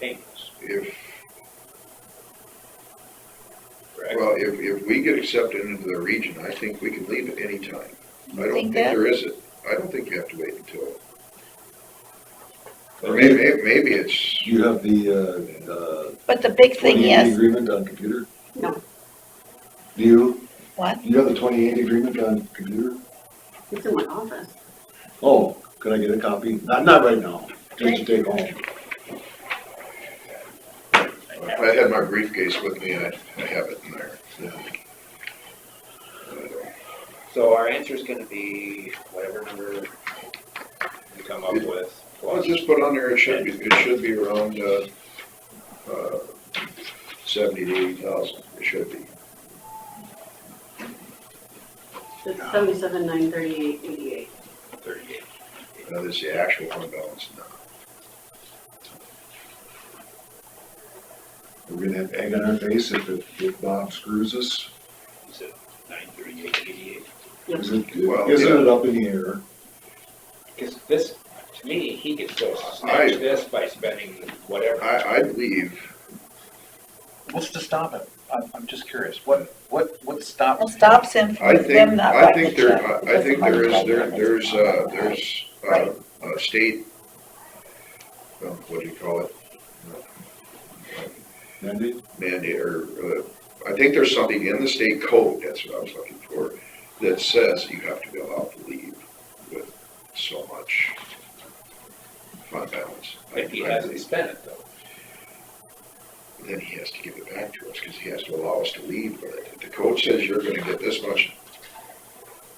payments, If, correct? well, if, if we get accepted into the region, I think we can leave at any time. I don't think Think that? there is, a- I don't think you have to wait until, or maybe, maybe it's, Do you have the, uh, uh, But the big thing twenty-eight is, agreement on computer? No. Do you, what? do you have the twenty-eight agreement on computer? It's in my office. Oh, could I get a copy? Not, not right now, just to take home. if I had my briefcase with me, I, I have it in there. So our answer is gonna be whatever number we come up with. Well, plus- just put on there, it should be, it should be around, uh, uh, seventy to eighty thousand, it should be. It's seventy-seven, nine thirty-eight, eighty-eight. Thirty-eight. Now, this is the actual fund balance now. We're gonna have egg on our face if, it- if Bob screws us. Is it nine thirty-eight eighty-eight? Yep. Is it, Well, isn't yeah. it up in the air? Because this, to me, he could still I- snatch this by spending whatever. I, I believe What's to stop it? I'm, I'm just curious. What, what, what stops? Well, stops him I from them think, not I writing think the check. there, I- I because think the there is, money there, comes there's, from uh, them. there's, uh, Right. a state, well, what do you call it, Mandy? mandate, or, uh, I think there's something in the state code, that's what I was looking for, that says you have to be allowed to leave with so much fund balance. If he I- I hasn't believe. spent it though. Then he has to give it back to us, cause he has to allow us to leave with it. If the code says you're gonna get this much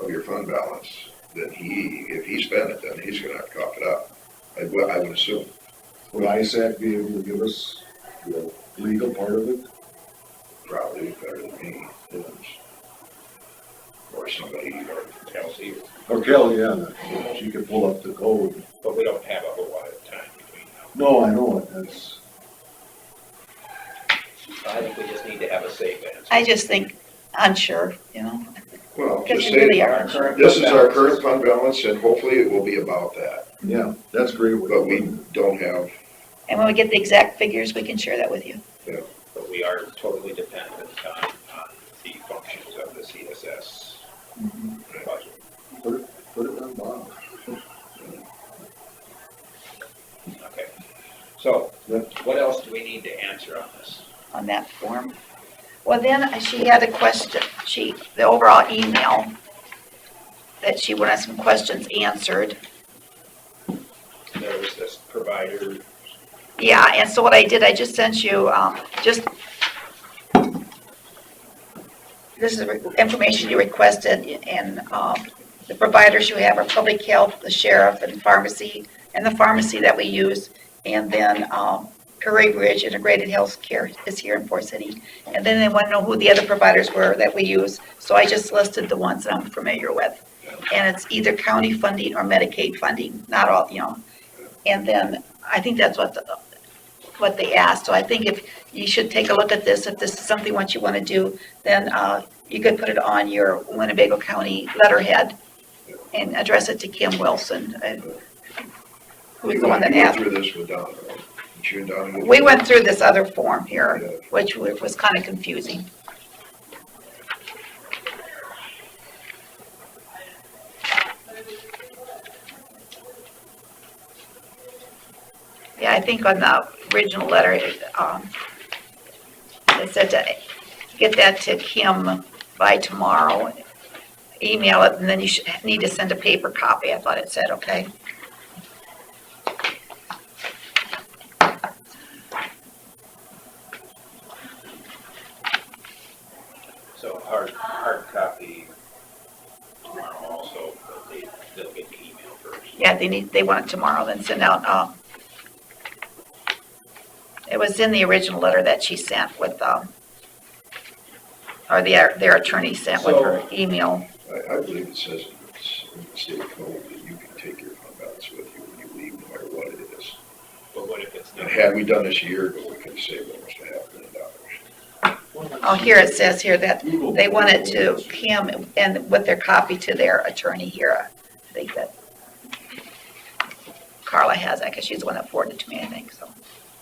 of your fund balance, then he, if he spent it, then he's gonna have to cough it up. I, would- I would assume. Would ISAC be able to give us the legal part of it? probably better than me, is. Or somebody, or, Kelsey, Or Kelly, oh, yeah, she could pull up the code. but we don't have a whole lot of time between now. No, I know it, that's, So I think we just need to have a safe answer. I just think unsure, you know, well, because just you really say, are Our unsure. current this is our balance current fund balance, and hopefully it will be about that, yeah, that's great. but we don't have, And when we get the exact figures, we can share that with you. But we are totally dependent on, on the functions of the CSS budget. Put it, put it on Bob. Okay, so Yeah. what else do we need to answer on this? on that form. Well, then uh, she had a question, she, the overall email, that she wanted some questions answered. There was this provider, Yeah, and so what I did, I just sent you, um, just, this is the information you requested, and, um, the providers you have are public health, the sheriff, and pharmacy, and the pharmacy that we use, and then, um, Prairie Ridge Integrated Healthcare is here in Fort City, and then they want to know who the other providers were that we use, so I just listed the ones that I'm familiar with. And it's either county funding or Medicaid funding, not all, you know, and then I think that's what, the- what they asked, so I think if, you should take a look at this, if this is something what you want to do, then uh, you could put it on your Winnebago County letterhead and address it to Kim Wilson, uh, who was the one that You went asked. through this with Donna, right? Didn't you and Donna go We went it? through this other form here, Yeah. which was kind of confusing. Yeah, I think on the original letter, it, um, it said to get that to Kim by tomorrow, email it, and then you should, need to send a paper copy, I thought it said, okay? so hard, hard copy tomorrow also, but they, they'll get the email first. Yeah, they need, they want it tomorrow, then send out, um, it was in the original letter that she sent with, um, or the, their attorney sent with her email. I, I believe it says it's in the state code that you can take your fund balance with you when you leave, no matter what it is. But what if it's And not? had we done this a year ago, we could have saved almost a half million dollars. Oh, here it says here that they want it to Kim and with their copy to their attorney here. I think that Carla has that, because she's the one that forwarded it to me, I think, so.